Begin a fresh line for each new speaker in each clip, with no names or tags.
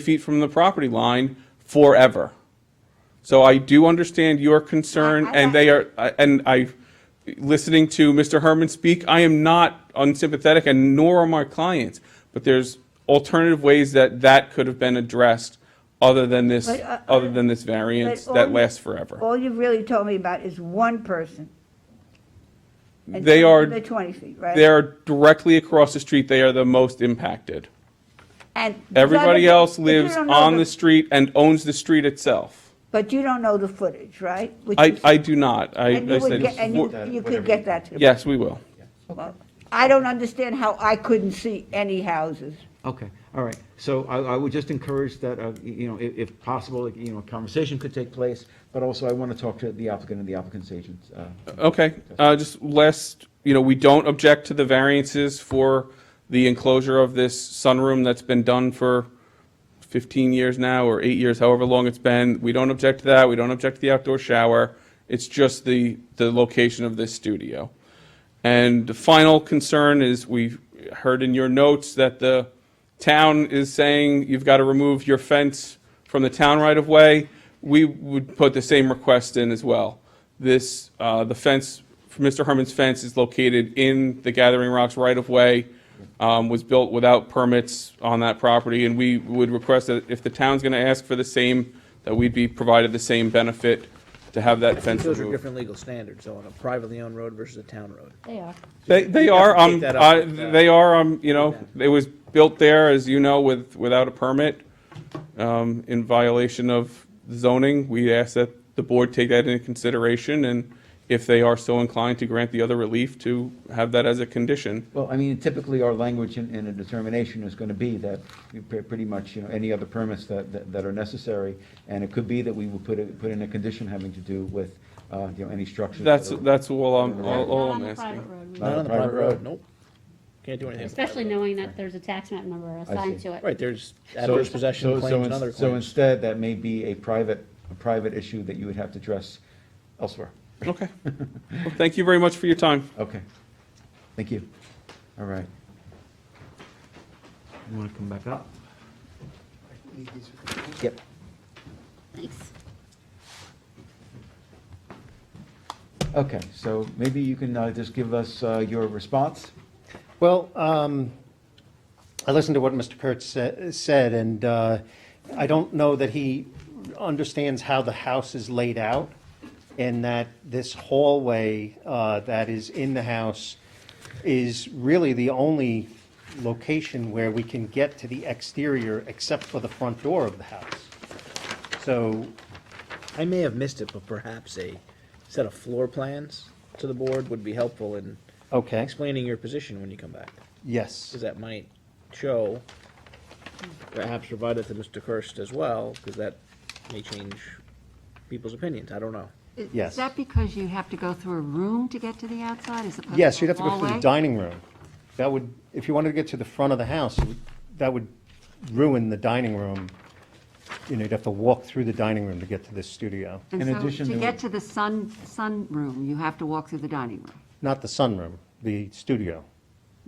feet from the property line forever. So I do understand your concern,
I- I-
and they are, I- and I, listening to Mr. Herman speak, I am not unsympathetic, and nor are my clients, but there's alternative ways that that could have been addressed other than this,
But, uh,
other than this variance
but
that
on-
lasts forever.
All you've really told me about is one person. And
They are-
The 20 feet, right?
They are directly across the street, they are the most impacted.
And
Everybody
none of-
else
but you
lives
don't know
on the street and owns the street itself.
But you don't know the footage, right? Which
I,
is-
I do not, I,
And
I
you would
said,
get, and you-
for-
you
Whatever
could
you-
get that to the.
yes, we will.
Well, I don't understand how I couldn't see any houses.
Okay, all right. So I, I would just encourage that, uh, y- you know, if, if possible, like, you know, a conversation could take place, but also I want to talk to the applicant and the applicant's agent. uh,
Okay, uh, just last, you know, we don't object to the variances for the enclosure of this sunroom that's been done for 15 years now, or eight years, however long it's been. We don't object to that, we don't object to the outdoor shower. It's just the, the location of this studio. And the final concern is, we heard in your notes that the town is saying you've got to remove your fence from the town right-of-way. We would put the same request in as well. This, uh, the fence, Mr. Herman's fence is located in the Gathering Rocks right-of-way, um, was built without permits on that property, and we would request that if the town's going to ask for the same, that we'd be provided the same benefit to have that fence
Those are
removed.
different legal standards, though, on a privately owned road versus a town road.
They are.
They, they are,
take
um,
that up
I,
with, uh,
they are, um, you know, it was built there, as you know, with, without a permit, um, in violation of zoning. We ask that the board take that into consideration, and if they are so inclined to grant the other relief, to have that as a condition.
Well, I mean, typically our language in, in a determination is going to be that we pre- pretty much, you know, any other permits that, that- that are necessary. And it could be that we will put, a- put in a condition having to do with, uh, you know, any structures. that
That's,
are-
that's all I'm,
Not-
all all
Not on
Oh, I'm
the private
asking.
road, we-
Not
Not
a
on the private
private road.
road, nope. Can't do anything. on the private
Especially
road.
knowing that there's a tax map number assigned
see.
to it.
Right, there's
So-
adverse
so-
possession
so
claims and
ins-
other
So
claims.
instead, that may be a private, a private issue that you would have to address elsewhere.
Okay. Well, Thank you very much for your time.
Okay. Thank you. All right. You want to come back up? Yep.
Thanks.
Okay, so maybe you can uh, just give us uh, your response?
Well, um, I listened to what Mr. Kurtz sa- said, and uh, I don't know that he understands how the house is laid out, and that this hallway uh, that is in the house is really the only location where we can get to the exterior except for the front door of the house. So,
I may have missed it, but perhaps a set of floor plans to the board would be helpful in
okay,
explaining your position when you come back.
yes.
Because that might show, perhaps provide it to Mr. Kirst as well, because that may change people's opinions, I don't know.
Is-
Yes.
Is that because you have to go through a room to get to the outside as opposed to a hallway?
Yes, you'd have to go through the dining room. That would, if you wanted to get to the front of the house, it would- that would ruin the dining room. You know, you'd have to walk through the dining room to get to this studio,
In
And so
addition,
to
there
get
would-
to the sun, sunroom, you have to walk through the dining room.
not the sunroom, the studio.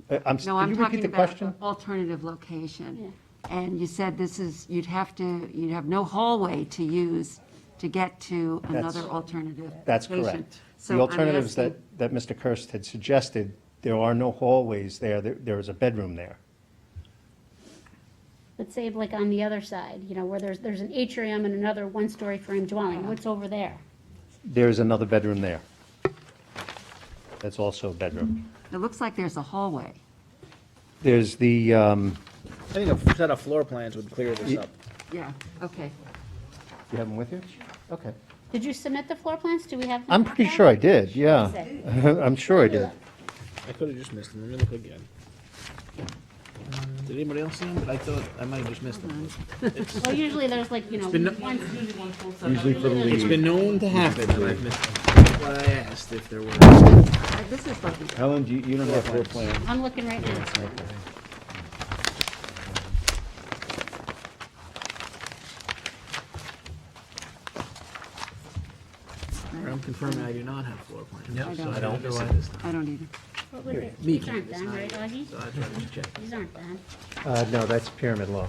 Uh, I'm, s-
No,
can
I'm
you repeat
talking
the
about
question?
the alternative location. And you said this is, you'd have to, you'd have no hallway to use to get to another alternative location.
That's correct.
So
The
I'm
alternatives that,
asking-
that Mr. Kirst had suggested, there are no hallways there, there, there is a bedroom there.
But say like on the other side, you know, where there's, there's an atrium and another one-story frame
Uh-huh.
dwelling, what's over there?
There's another bedroom there. That's also a bedroom.
It looks like there's a hallway.
There's the, um,
I think a set of floor plans would clear this up.
Yeah, okay.
you have them with you? Okay.
Did you submit the floor plans? Do we have? them
I'm
back
pretty
there?
sure I did, yeah.
Sick.
I'm sure I did.
I could have just missed them, let me look again. Did anybody else see them? I thought, I might have just missed them.
Well, usually there's like, you know,
been no-
one.
Usually for the
there's-
It's
lead.
been known to happen that I've missed them. That's why I asked if there were.
Uh, This is lucky.
Helen, do you you don't have floor plan.
I'm looking right now.
I'm confirming I do not have floor plans.
I
So I don't
don't,
miss it this time.
I don't either.
These aren't done, right, Augie?
So I tried to check.
These aren't done.
Uh, no, that's pyramid law.